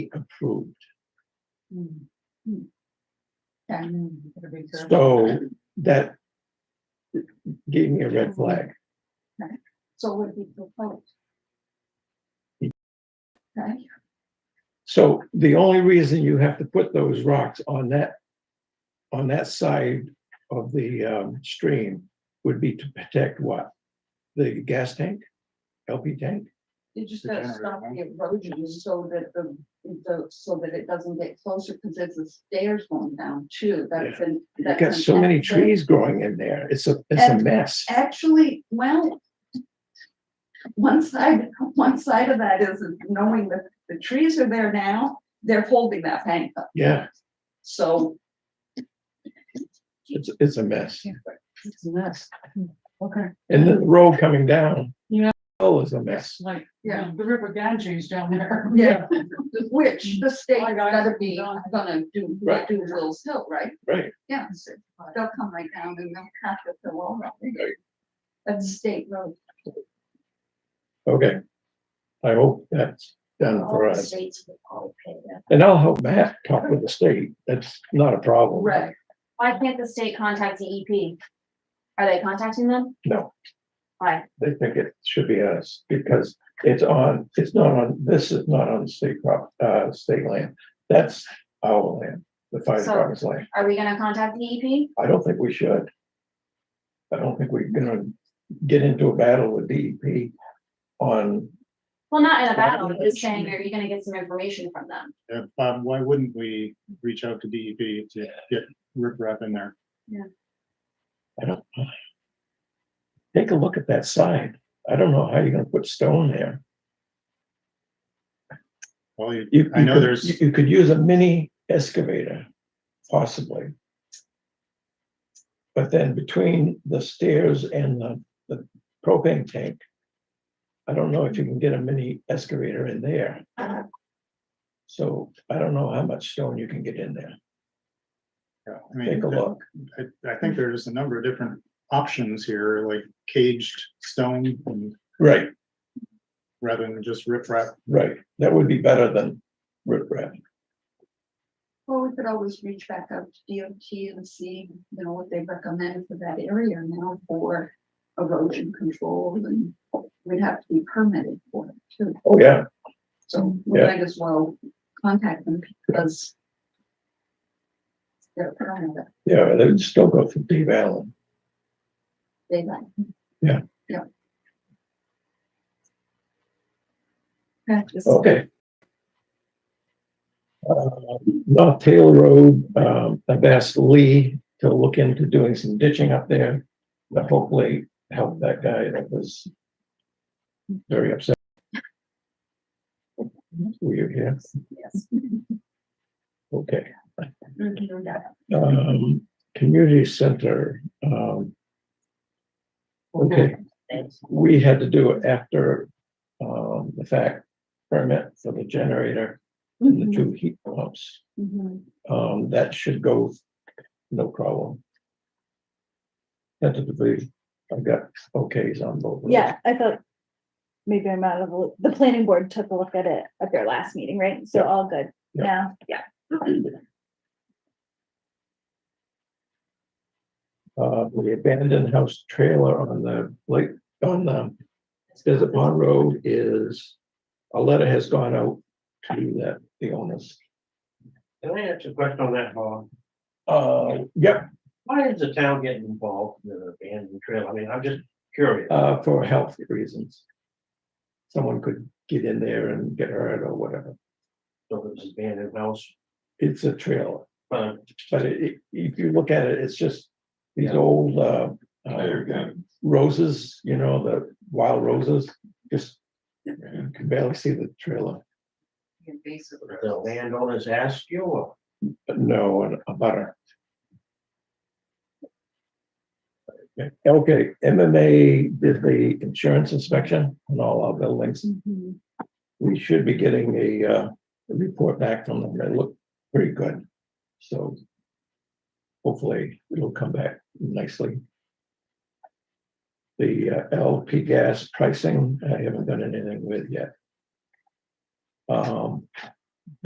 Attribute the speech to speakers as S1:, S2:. S1: approved.
S2: Hmm,
S1: So
S2: So.
S1: that gave me a red flag.
S2: So would be proposed. Okay,
S1: So the only reason you have to put those rocks on that, on that side of the um, stream would be to protect what? The gas tank, LP tank?
S2: you just
S3: The
S2: gotta
S3: generator,
S2: stop
S3: huh?
S2: the erosion so that the, the, so that it doesn't get closer, because there's the stairs going down too, that's an.
S1: You've
S2: that's
S1: got
S2: an
S1: so many
S2: exit.
S1: trees growing in there. It's a, it's a
S2: And-
S1: mess.
S2: Actually, well. One side, one side of that is knowing that the trees are there now, they're holding that bank up,
S1: Yeah,
S2: so.
S1: it's, it's a mess.
S4: It's a mess.
S2: Hmm.
S4: Okay,
S1: And then the road coming down.
S4: Yeah.
S1: Oh, is a mess.
S4: it's like,
S2: Yeah.
S4: yeah, the river Ganges down there.
S2: Yeah, which the state
S4: I got it.
S2: gotta be gonna do,
S1: Right.
S2: do Will's Hill, right?
S1: Right,
S2: Yeah, so they'll come right down and they'll cut the fill all up.
S1: Right.
S2: That's a state road.
S1: okay. I hope that's done for
S5: All the
S1: us.
S5: states would all pay that.
S1: And I'll help Matt talk with the state. That's not a problem.
S2: Right.
S5: Why can't the state contact the EP? Are they contacting them?
S1: No.
S5: Why?
S1: They think it should be us because it's on, it's not on, this is not on state prop, uh, state land. That's our land, the fire
S5: So-
S1: department's land.
S5: Are we gonna contact the E EP?
S1: I don't think we should. I don't think we're gonna get into a battle with DEP on,
S5: Well, not in a battle,
S1: Well,
S5: but just saying, are you gonna get some information from them?
S3: Yeah, um, why wouldn't we reach out to DEP to get riprap in there?
S1: I don't. Take a look at that side. I don't know how you're gonna put stone there.
S3: Well, you,
S1: You-
S3: I know
S1: you could-
S3: there's-
S1: You could use a mini excavator, possibly. But then between the stairs and the, the propane tank, I don't know if you can get a mini excavator in there. So I don't know how much stone you can get in there.
S3: yeah, I mean,
S1: Take a
S3: that-
S1: look.
S3: I, I think there's a number of different options here, like caged stone and
S1: Right,
S3: rather than just riprap.
S1: right. That would be better than riprap.
S2: Well, we could always reach back out to DOT and see, you know, what they recommend for that area now for erosion control and we'd have to be permitted for it too.
S1: Oh, yeah.
S2: So we
S1: Yeah.
S2: might as well contact them because they're permitted,
S1: Yeah, they would still go through Dave Allen.
S2: they like.
S1: Yeah.
S2: Yeah. Okay, just-
S1: Okay. Uh, North Taylor Road, um, I've asked Lee to look into doing some ditching up there. But hopefully help that guy that was very upset. Were you here?
S2: Yes.
S1: Okay.
S2: Mhm, yeah.
S1: Um, community center, um. Okay, we had to do it after, um, the fact permit for the generator and the two heat pumps.
S6: Mm-hmm.
S2: Mhm.
S1: Um, that should go, no problem. Tentatively, I've got okays on both. of those.
S6: Yeah, I thought maybe I'm out of the, loop. the planning board took a look at it at their last meeting, right? So
S1: Yeah.
S6: all good
S1: Yeah.
S6: now, yeah.
S1: Uh, the abandoned house trailer on the lake, on um, the Desert Pond Road is, a letter has gone out to that, the owners.
S7: Can I ask a question on that, Bob?
S1: Uh, yep,
S7: Why is the town getting involved in an abandoned trail? I mean, I'm just curious.
S1: uh, for health reasons. Someone could get in there and get hurt or whatever.
S7: So it's an abandoned uh, house,
S1: It's a trailer,
S7: but
S1: but it, it- if you look at it, it's just these old, uh, uh, roses, you know, the wild roses, just you can barely see the trailer.
S2: Invasive.
S7: the landowners ask you or?
S1: No, and a butter. Okay, MMA did the insurance inspection on all our buildings.
S2: Mhm.
S1: We should be getting a, uh, a report back from them. They look pretty good. So hopefully it'll come back nicely. The uh, LP gas pricing, I haven't done anything with yet. Um,